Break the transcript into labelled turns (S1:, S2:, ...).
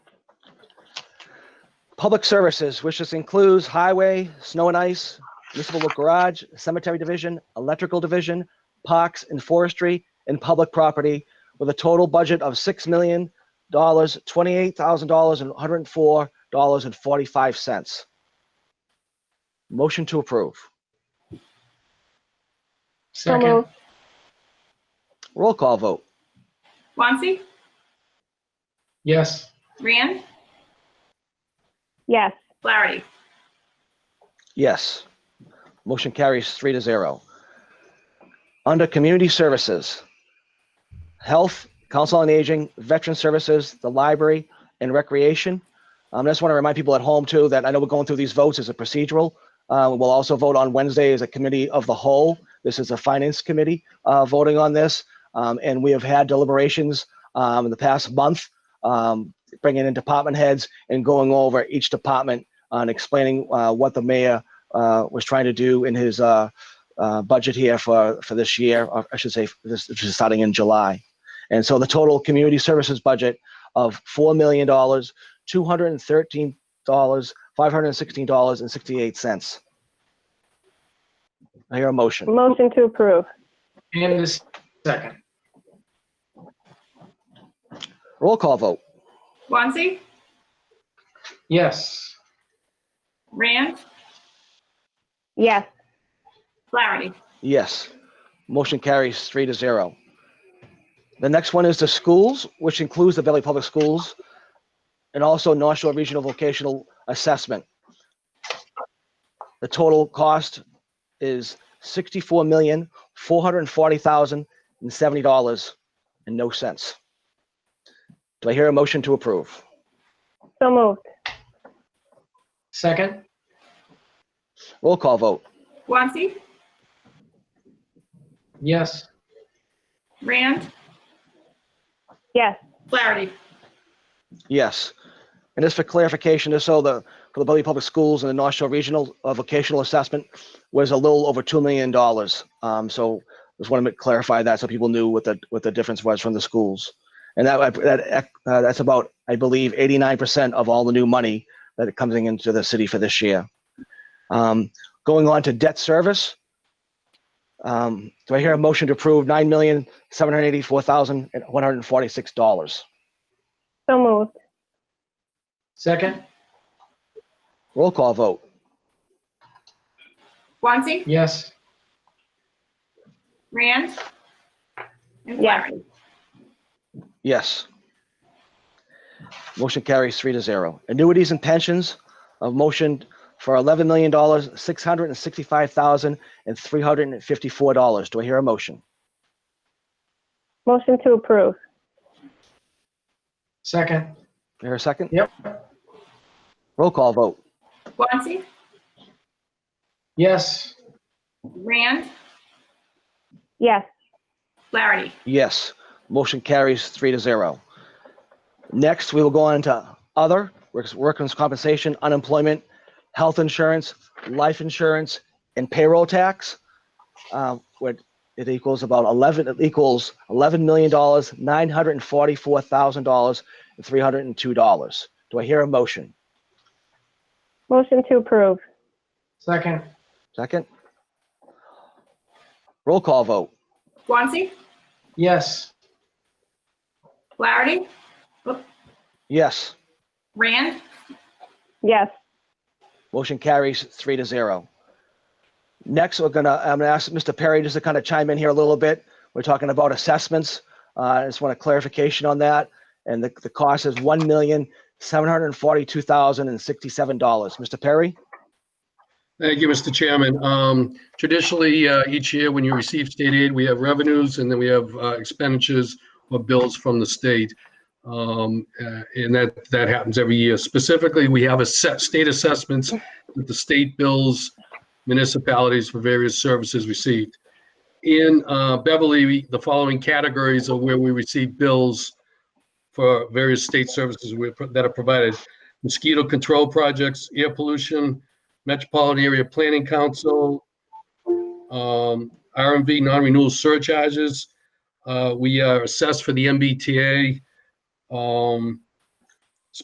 S1: Public services, which just includes highway, snow and ice, municipal garage, cemetery division, electrical division, parks and forestry, and public property, with a total budget of six million dollars, twenty-eight thousand dollars, and one hundred and four dollars and forty-five cents. Motion to approve.
S2: So
S3: Second.
S2: moved.
S1: Roll call vote.
S4: Guanxi,
S3: Yes.
S4: Rand,
S2: Yes.
S4: Flaherty.
S1: Yes. Motion carries three to zero. Under Community Services, Health, Council on Aging, Veteran Services, the Library, and Recreation. Um, I just want to remind people at home too that I know we're going through these votes as a procedural. Uh, we'll also vote on Wednesday as a committee of the whole. This is a Finance Committee uh, voting on this, um, and we have had deliberations um, in the past month, um, bringing in department heads and going over each department on explaining uh, what the mayor uh, was trying to do in his uh, uh, budget here for, for this year, or I should say, for this, which is starting in July. And so the total community services budget of $4 million, $213, $516.68. I hear a motion.
S2: Motion to approve.
S3: And a second.
S1: Roll call vote.
S4: Guanxi,
S3: Yes.
S4: Rand,
S2: Yes.
S4: Flaherty.
S1: Yes. Motion carries three to zero. The next one is the schools, which includes the Valley Public Schools and also North Shore Regional Vocational Assessment. The total cost is sixty-four million, four hundred and forty thousand and seventy dollars and no cents. Do I hear a motion to approve?
S2: So moved.
S3: Second.
S1: Roll call vote.
S4: Guanxi,
S3: Yes.
S4: Rand,
S2: Yes.
S4: Flaherty.
S1: Yes. And just for clarification, just so the, for the Bellevue Public Schools and the North Shore Regional uh, Vocational Assessment was a little over $2 million. Um, So just want to clarify that so people knew what the, what the difference was from the schools. And that, that, uh, that's about, I believe, 89% of all the new money that comes into the city for this year. Um, Going on to debt service. Um, Do I hear a motion to approve $9,784,146?
S2: So moved.
S3: Second.
S1: Roll call vote.
S4: Guanxi,
S3: Yes.
S4: Rand, and
S2: Yes.
S4: Flaherty.
S1: Yes. Motion carries three to zero. Annuities and pensions, a motion for eleven million dollars, six hundred and sixty-five thousand and three hundred and fifty-four dollars. Do I hear a motion?
S2: Motion to approve.
S3: Second.
S1: Do I hear a second?
S3: Yep.
S1: Roll call vote.
S4: Guanxi,
S3: Yes.
S4: Rand,
S2: Yes.
S4: Flaherty.
S1: Yes. Motion carries three to zero. Next, we will go on to other, workers- workers' compensation, unemployment, health insurance, life insurance, and payroll tax. uh, What it equals about 11, it equals $11 million, $944,000, and $302. Do I hear a motion?
S2: Motion to approve.
S3: Second.
S1: Second? Roll call vote.
S4: Guanxi,
S3: Yes.
S4: Flaherty,
S1: Yes.
S4: Rand,
S2: Yes.
S1: Motion carries three to zero. Next, we're gonna, I'm gonna ask Mr. Perry just to kind of chime in here a little bit. We're talking about assessments. Uh, I just want a clarification on that. And the, the cost is one million, seven hundred and forty-two thousand and sixty-seven dollars. Mr. Perry?
S5: Thank you, Mr. Chairman. Um, Traditionally, uh, each year when you receive state aid, we have revenues and then we have uh, expenditures or bills from the state. Um, uh, And that, that happens every year. Specifically, we have a set state assessments that the state bills municipalities for various services received. In uh, Beverly, we- the following categories are where we receive bills for various state services we- that are provided. Mosquito control projects, air pollution, Metropolitan Area Planning Council, um, RMV non-renewal surcharges. Uh, we are assessed for the MBTA. Um,